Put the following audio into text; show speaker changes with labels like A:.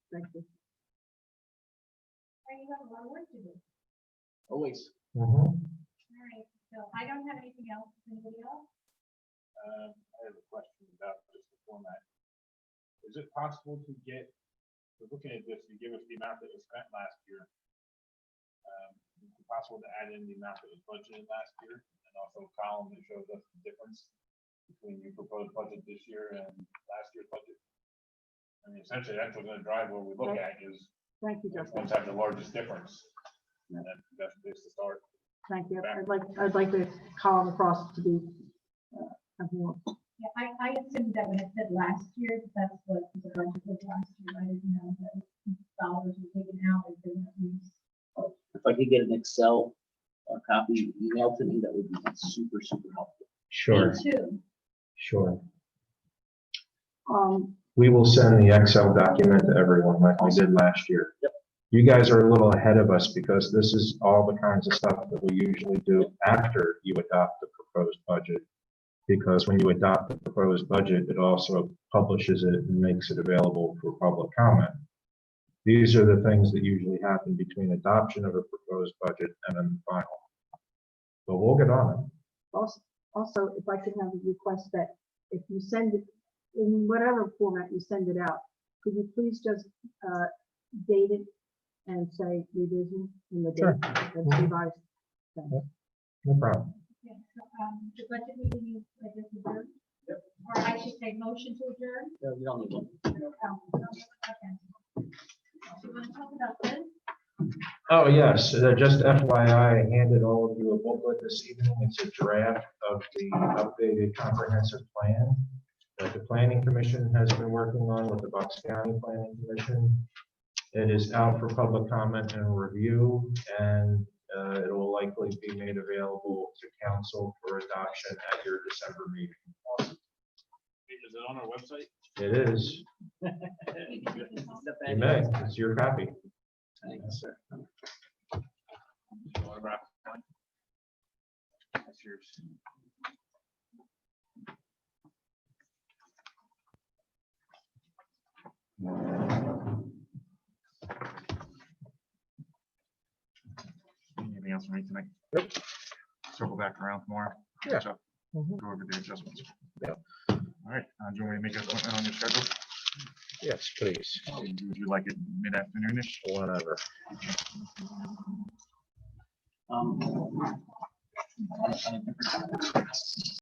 A: Thank you. And you have a lot of work to do.
B: Always.
A: All right, so I don't have anything else, anybody else?
C: Um, I have a question about just the format. Is it possible to get, we're looking at this, you give us the amount that was spent last year. Um, is it possible to add in the amount that was budgeted last year and also a column that shows us the difference between your proposed budget this year and last year's budget? I mean, essentially, that's what's gonna drive what we look at is
D: Thank you,
C: which
D: Justin.
C: ones have the largest difference. And that's the best place to start.
D: Thank you. I'd like, I'd like the column across to be, uh, have more.
A: Yeah, I, I assumed that when it said last year, that's what the budget was last year, I didn't know that dollars were taken out, they didn't use.
B: If I could get an Excel uh, copy emailed to me, that would be super, super helpful.
E: Sure,
A: Two,
E: sure.
D: Um,
E: We will send the Excel document to everyone like we did last year. Yep. You guys are a little ahead of us because this is all the kinds of stuff that we usually do after you adopt the proposed budget. Because when you adopt the proposed budget, it also publishes it and makes it available for public comment. These are the things that usually happen between adoption of a proposed budget and then final. But we'll get on it.
D: also, also, if I could have a request that if you send it, in whatever format you send it out, could you please just, uh, date it and say revision in the
E: Sure.
D: date that's revised?
E: No problem.
A: yeah, so, um, the budget meeting is, I guess, adjourned. Or I should say motion to adjourn.
B: No, You don't need one.
A: Um, okay. Do you want to talk about this?
E: Oh, yes, uh, just FYI, I handed all of you a booklet this evening. It's a draft of the updated comprehensive plan that the planning commission has been working on with the Bucks County Planning Commission. It is out for public comment and review, and uh, it will likely be made available to council for adoption at your December meeting.
C: Is it on our website?
E: It is,
A: You can take this off.
E: you may, it's your copy.
B: Thanks, sir.
C: Or about- That's yours. Anything else for me tonight? Circle back around tomorrow.
E: Yeah.
C: catch up, Go
E: Mhm.
C: over the adjustments.
E: Yeah.
C: All right, uh, do you want me to make an appointment on your schedule?
E: Yes, please,
C: Would you like it mid-afternoonish?
E: whatever.
B: Um, on a- on a different topic.